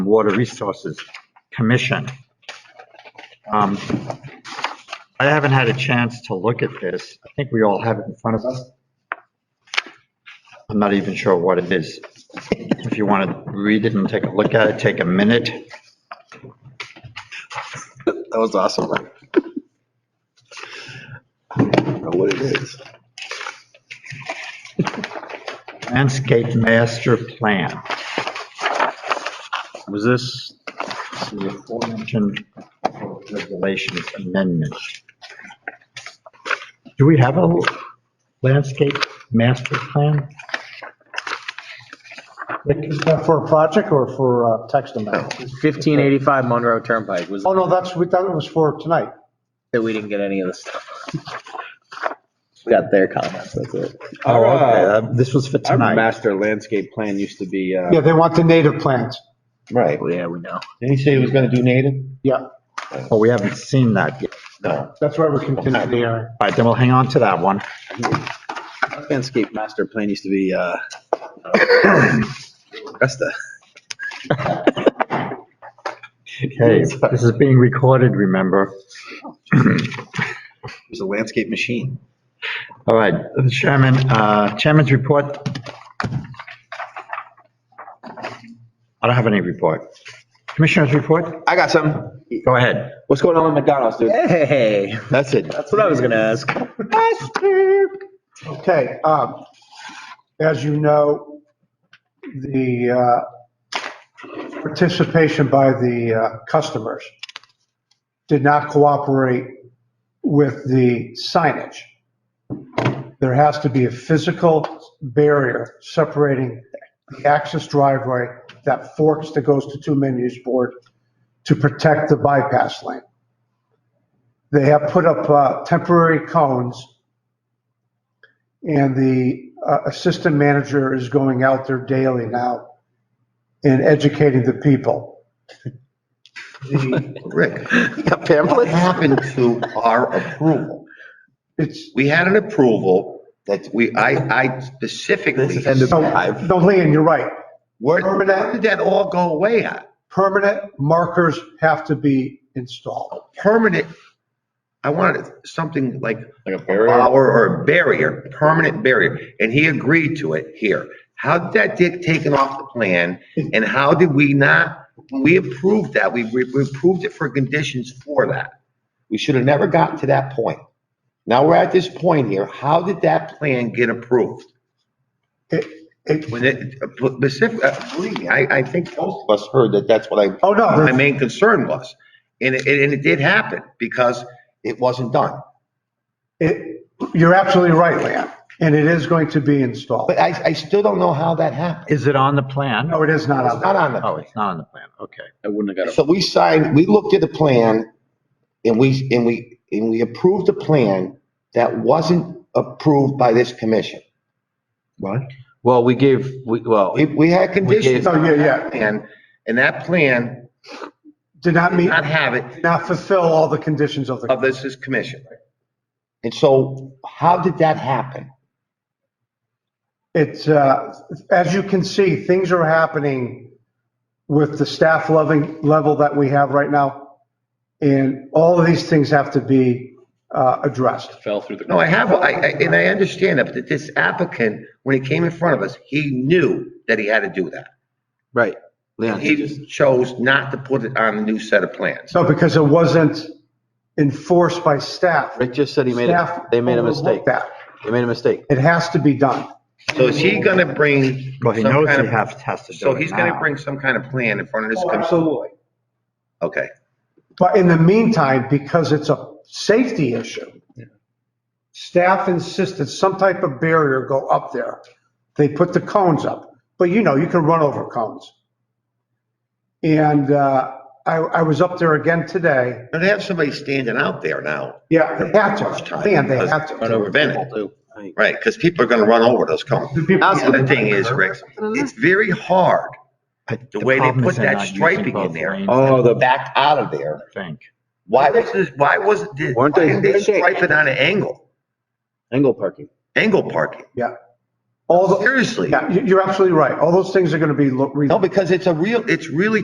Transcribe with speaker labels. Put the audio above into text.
Speaker 1: Water Resources Commission. Um, I haven't had a chance to look at this. I think we all have it in front of us. I'm not even sure what it is. If you want to read it and take a look at it, take a minute.
Speaker 2: That was awesome. Ryan. I don't know what it is.
Speaker 1: Landscape Master Plan.
Speaker 3: Was this,
Speaker 1: the aforementioned regulations amendment. Do we have a landscape master plan?
Speaker 4: Is that for a project or for uh, text amendment?
Speaker 5: 1585 Monroe Turnpike was,
Speaker 4: Oh, no, that's, we thought it was for tonight.
Speaker 5: that we didn't get any of the stuff. We got their comments, that's it.
Speaker 1: Oh, okay, uh, this was for
Speaker 3: our
Speaker 1: tonight.
Speaker 3: master landscape plan used to be, uh,
Speaker 4: Yeah, they want the native plants.
Speaker 2: Right.
Speaker 5: Yeah, we know.
Speaker 2: Didn't he say he was gonna do native?
Speaker 4: Yeah,
Speaker 1: Oh, we haven't seen that yet.
Speaker 2: No.
Speaker 4: that's why we're continuing the hearing.
Speaker 1: All right, then we'll hang on to that one.
Speaker 3: our landscape master plan used to be, uh, Augusta.
Speaker 1: Okay, this is being recorded, remember?
Speaker 3: It was a landscape machine.
Speaker 1: All right, Chairman, uh, Chairman's report. I don't have any report. Commissioner's report?
Speaker 3: I got some.
Speaker 1: Go ahead.
Speaker 3: What's going on with McDonald's, dude?
Speaker 5: Hey,
Speaker 3: That's it.
Speaker 5: that's what I was gonna ask.
Speaker 4: Okay, um, as you know, the uh, participation by the uh, customers did not cooperate with the signage. There has to be a physical barrier separating the access driveway that forks that goes to two menus board to protect the bypass lane. They have put up uh, temporary cones and the uh, assistant manager is going out there daily now and educating the people. The-
Speaker 2: Rick, what happened to our approval?
Speaker 4: It's,
Speaker 2: We had an approval that we, I, I specifically.
Speaker 4: no, no, Leon, you're right.
Speaker 2: Where, where did that all go away at?
Speaker 4: Permanent markers have to be installed.
Speaker 2: Permanent, I wanted something like
Speaker 3: Like a
Speaker 2: a
Speaker 3: barrier.
Speaker 2: bar or a barrier, permanent barrier, and he agreed to it here. How did that get taken off the plan, and how did we not, we approved that, we, we we approved it for conditions for that. We should have never gotten to that point. Now we're at this point here, how did that plan get approved?
Speaker 4: It, it,
Speaker 2: When it, specific, uh, believe me, I, I think most of us heard that that's what I
Speaker 4: oh, no,
Speaker 2: my
Speaker 4: there's-
Speaker 2: main concern was. And it, and it did happen because it wasn't done.
Speaker 4: it, you're absolutely right, Leon, and it is going to be installed.
Speaker 2: But I, I still don't know how that happened.
Speaker 1: Is it on the plan?
Speaker 4: No, it is not
Speaker 2: It's
Speaker 4: on there.
Speaker 2: not on the
Speaker 1: Oh, it's not on the plan, okay.
Speaker 3: I wouldn't have got
Speaker 2: So we signed, we looked at the plan and we, and we, and we approved a plan that wasn't approved by this commission. What?
Speaker 5: Well, we gave, we, well,
Speaker 2: We, we had conditions
Speaker 4: Oh, yeah, yeah,
Speaker 2: and, and that plan
Speaker 4: did not
Speaker 2: did
Speaker 4: meet,
Speaker 2: not have it
Speaker 4: did not fulfill all the conditions of
Speaker 2: of
Speaker 4: the,
Speaker 2: this is commission. And so how did that happen?
Speaker 4: it's, uh, as you can see, things are happening with the staff loving level that we have right now. And all of these things have to be uh, addressed.
Speaker 3: Fell through the.
Speaker 2: No, I have, I, I, and I understand that, but this applicant, when he came in front of us, he knew that he had to do that.
Speaker 3: Right. Leon, he just-
Speaker 2: He chose not to put it on the new set of plans.
Speaker 4: So because it wasn't enforced by staff.
Speaker 6: Rick just said he made, a
Speaker 4: staff
Speaker 6: they made a
Speaker 4: overlooked
Speaker 6: mistake.
Speaker 4: that.
Speaker 6: They made a mistake.
Speaker 4: It has to be done.
Speaker 2: So is he gonna bring
Speaker 1: Well, he
Speaker 2: some
Speaker 1: knows
Speaker 2: kind
Speaker 1: he
Speaker 2: of-
Speaker 1: has, has to do
Speaker 2: So
Speaker 1: it
Speaker 2: he's gonna
Speaker 1: now.
Speaker 2: bring some kind of plan in front of this, commission.
Speaker 4: Absolutely.
Speaker 2: okay.
Speaker 4: But in the meantime, because it's a safety issue, staff insisted some type of barrier go up there. They put the cones up, but you know, you can run over cones. And uh, I, I was up there again today.
Speaker 2: Now they have somebody standing out there now
Speaker 4: Yeah, they had to, man, they had
Speaker 2: to
Speaker 4: to.
Speaker 2: prevent it. Right, because people are gonna run over those cones.
Speaker 4: The people-
Speaker 2: The other thing is, Rick, it's very hard
Speaker 1: But
Speaker 2: the way they
Speaker 1: problem is
Speaker 2: put
Speaker 1: they're
Speaker 2: that
Speaker 1: not using
Speaker 2: striping
Speaker 1: both
Speaker 2: in there.
Speaker 1: lanes,
Speaker 3: Oh,
Speaker 2: to
Speaker 3: the,
Speaker 2: back out of there.
Speaker 1: I think.
Speaker 2: Why was this, why was, did, why
Speaker 6: Weren't they-
Speaker 2: didn't they stripe it on an angle,
Speaker 6: Angle parking.
Speaker 2: angle parking?
Speaker 4: Yeah. All the,
Speaker 2: Seriously?
Speaker 4: yeah, you- you're absolutely right. All those things are going to be. lo- re-
Speaker 2: No, because it's a real, it's really